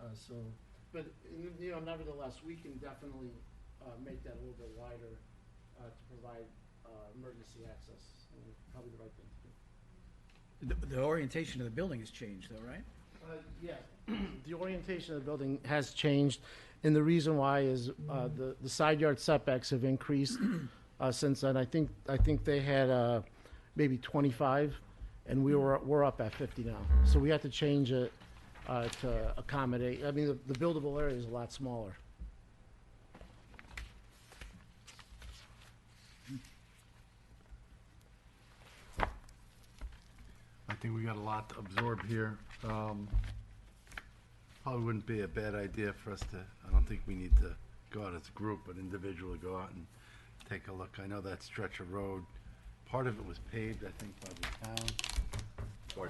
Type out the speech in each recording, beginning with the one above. Uh, so, but, n- you know, nevertheless, we can definitely, uh, make that a little bit wider, uh, to provide, uh, emergency access, and it's probably the right thing to do. The, the orientation of the building has changed though, right? Uh, Yes, the orientation of the building has changed, and the reason why is uh, the the side yard setbacks have increased uh, since then. I think, I think they had uh, maybe 25, and we were, we're up at 50 now. So we have to change it uh, to accommodate, I mean, the- the buildable area is a lot smaller. I think we got a lot to absorb here. Um, Probably wouldn't be a bad idea for us to, I don't think we need to go out as a group, but individually go out and take a look. I know that stretch of road, part of it was paved, I think, by the town. Uh, Well,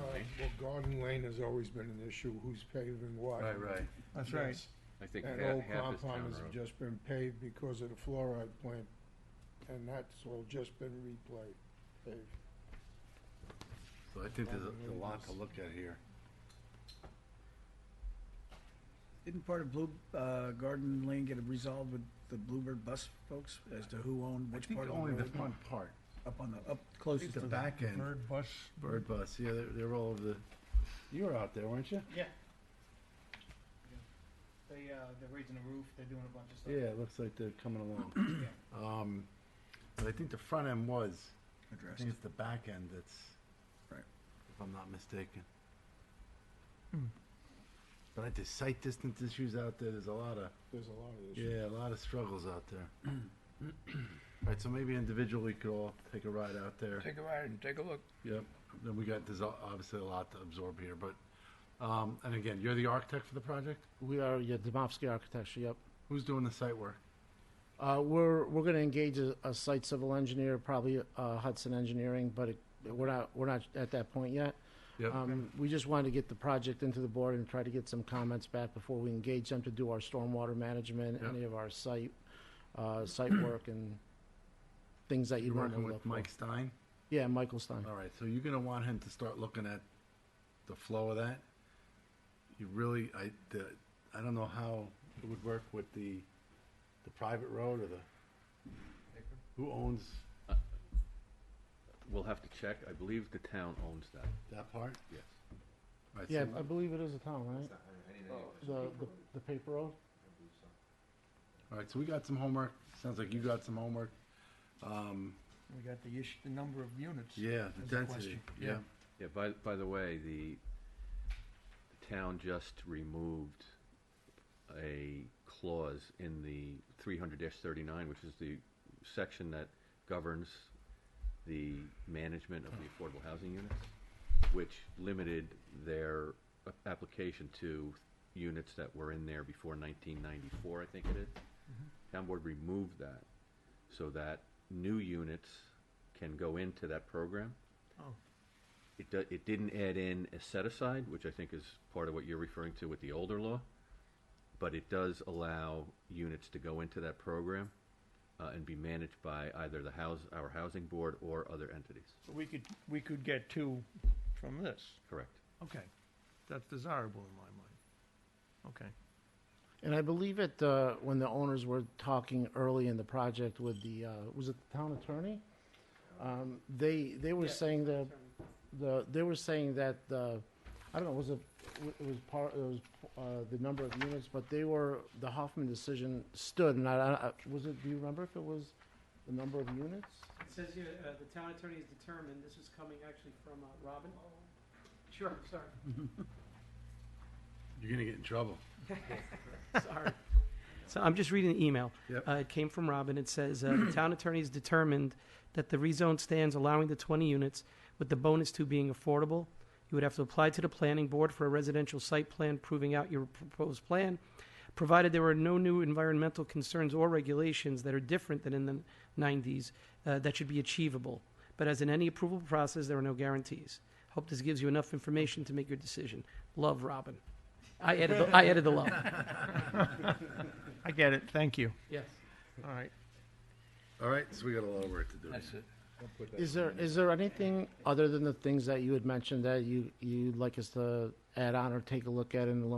Garden Lane has always been an issue, who's paving what. Right, right. That's right. Yes. I think That ha- old half is town compound has road. just been paved because of the fluoride plant, and that's all just been replayed, paved. So I think there's a- a lot to look at here. Didn't part of Blue, uh, Garden Lane get resolved with the Bluebird bus folks as to who owned I which think part of the only the road? front part, Up on the, up I think closest the to the. back end. Bird bus, Bird bus, yeah, they're, they're all over the, you were out there, weren't you? Yeah. They, uh, they're raising the roof, they're doing a bunch of stuff. Yeah, it looks like they're coming along. Um, But I think the front end was, I Addressed. think it's the back end that's. Right. If I'm not mistaken. But I there's sight distance issues out there, there's a lot of, There's a lot of issues. yeah, a lot of struggles out there. Alright, so maybe individually could all take a ride out there, take a ride and take a look. yep, then we got, there's o- obviously a lot to absorb here, but, um, and again, you're the architect for the project? We are, yeah, Domofsky Architecture, yep. Who's doing the site work? Uh, We're, we're going to engage a a site civil engineer, probably uh, Hudson Engineering, but it- we're not, we're not at that point yet. Yep. Um, We just wanted to get the project into the board and try to get some comments back before we engage them to do our stormwater management, Yep. any of our site, uh, site work and things that you You're want to working look with for. Mike Stein? Yeah, Michael Stein. All right, so you're gonna want him to start looking at the flow of that. You really, I, the, I don't know how it would work with the, the private road or the, who owns We'll have to check. I believe the town owns that, that part? yes. All right, Yeah, so- I believe it is a town, right? The, the, the paper road? All right, so we got some homework. Sounds like you got some homework. Um, We got the issue, the number of units. yeah, That's a the density, question, yeah. yeah. Yeah, by, by the way, the, the town just removed a clause in the three hundred thirty-nine, which is the section that governs the management of the affordable housing units, which limited their a- application to units that were in there before nineteen ninety-four, I think it is. Town board removed that, so that new units can go into that program. Oh. It, do- it didn't add in a set aside, which I think is part of what you're referring to with the older law, but it does allow units to go into that program uh, and be managed by either the house, our housing board or other entities. So we could, we could get two from this. Correct. Okay. That's desirable in my mind. Okay. And I believe it, uh, when the owners were talking early in the project with the, uh, was it the town attorney? Um, they, they were saying that, the, they were saying that, uh, I don't know, was it, it was part, it was, uh, the number of units, but they were, the Hoffman decision stood, and I, I, was it, do you remember if it was the number of units? It says here, uh, the town attorney has determined, this is coming actually from, uh, Robin. Sure, sorry, You're gonna get in trouble. sorry. So I'm just reading the email. Yep. Uh, it came from Robin. It says, uh, the town attorney has determined that the rezone stands allowing the twenty units, with the bonus two being affordable. You would have to apply to the planning board for a residential site plan proving out your proposed plan, provided there are no new environmental concerns or regulations that are different than in the nineties, uh, that should be achievable. But as in any approval process, there are no guarantees. Hope this gives you enough information to make your decision. Love, Robin. I added, the, I added the love. I get it. Thank you. Yes. All right. All right, so we got a lot of work to do. it. Is there, is there anything other than the things that you had mentioned that you, you'd like us to add on or take a look at in a little